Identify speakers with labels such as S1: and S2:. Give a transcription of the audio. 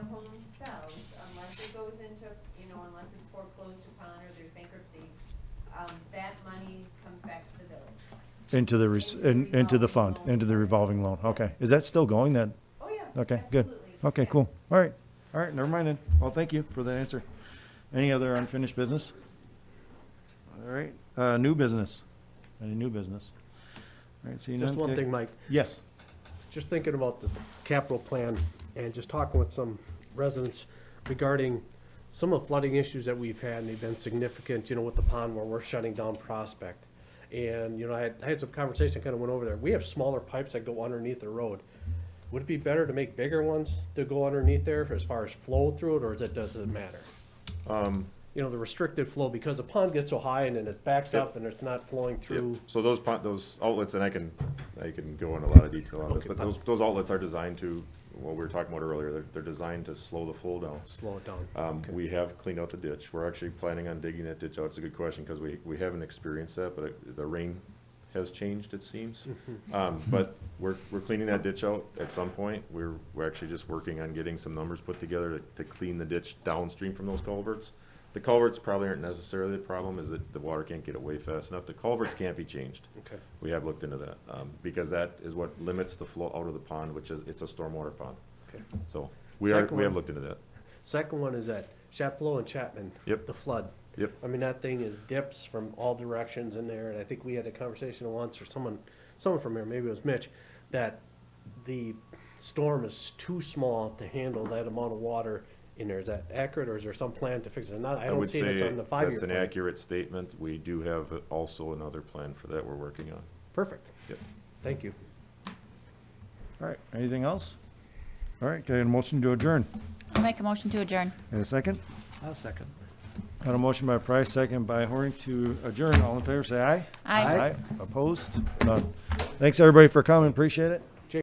S1: themselves, unless it goes into, you know, unless it's foreclosed upon or there's bankruptcy, um, that money comes back to the village.
S2: Into the, res-
S1: Into the
S2: in- into the fund,
S1: revolving loan.
S2: into the revolving loan, okay. Is that still going then?
S1: Oh, yeah,
S2: Okay, good.
S1: absolutely.
S2: Okay,
S1: Yeah.
S2: cool. All right, all right, never mind then. Well, thank you for the answer. Any other unfinished business? All right, uh, new business, any new business? All right, seeing none.
S3: Just one
S2: okay.
S3: thing, Mike,
S2: Yes,
S3: just thinking about the capital plan and just talking with some residents regarding some of the flooding issues that we've had, and they've been significant, you know, with the pond where we're shutting down Prospect. And, you know, I had, I had some conversation, kind of went over there. We have smaller pipes that go underneath the road. Would it be better to make bigger ones to go underneath there as far as flow through it, or is it, does it matter?
S4: Um,
S3: You know, the restricted flow, because the pond gets so high and then it backs up and it's not flowing through.
S4: So those pon, those outlets, and I can, I can go in a lot of detail on this,
S3: Okay,
S4: but
S3: fine.
S4: those, those outlets are designed to, what we were talking about earlier, they're, they're designed to slow the flow down.
S3: Slow it down.
S4: Um, we have cleaned out the ditch. We're actually planning on digging that ditch out. It's a good question because we, we haven't experienced that, but it- the rain has changed, it seems.
S3: Mm-hmm.
S4: Um, but we're, we're cleaning that ditch out at some point. We're, we're actually just working on getting some numbers put together to, to clean the ditch downstream from those culverts. The culverts probably aren't necessarily the problem, is that the water can't get away fast enough. The culverts can't be changed.
S3: Okay.
S4: We have looked into that, um, because that is what limits the flow out of the pond, which is, it's a stormwater pond.
S3: Okay.
S4: So we are,
S3: Second
S4: we have
S3: one.
S4: looked into that.
S3: Second one is at Chaplow and Chapman.
S4: Yep.
S3: The flood.
S4: Yep.
S3: I mean, that thing is dips from all directions in there, and I think we had a conversation once, or someone, someone from here, maybe it was Mitch, that the storm is too small to handle that amount of water in there. Is that accurate, or is there some plan to fix it? Not, I
S4: I
S3: don't
S4: would
S3: see it
S4: say
S3: It's on the five-year
S4: that's an
S3: plan.
S4: accurate statement. We do have also another plan for that we're working on.
S3: Perfect.
S4: Yep.
S3: Thank you.
S2: all right, anything else? All right, can I get a motion to adjourn?
S5: I'll make a motion to adjourn.
S2: And a second?
S3: I'll second.
S2: Got a motion by Price, second by Horning to adjourn. All in favor, say aye.
S5: Aye.
S2: Opposed? None. Thanks, everybody, for coming. Appreciate it.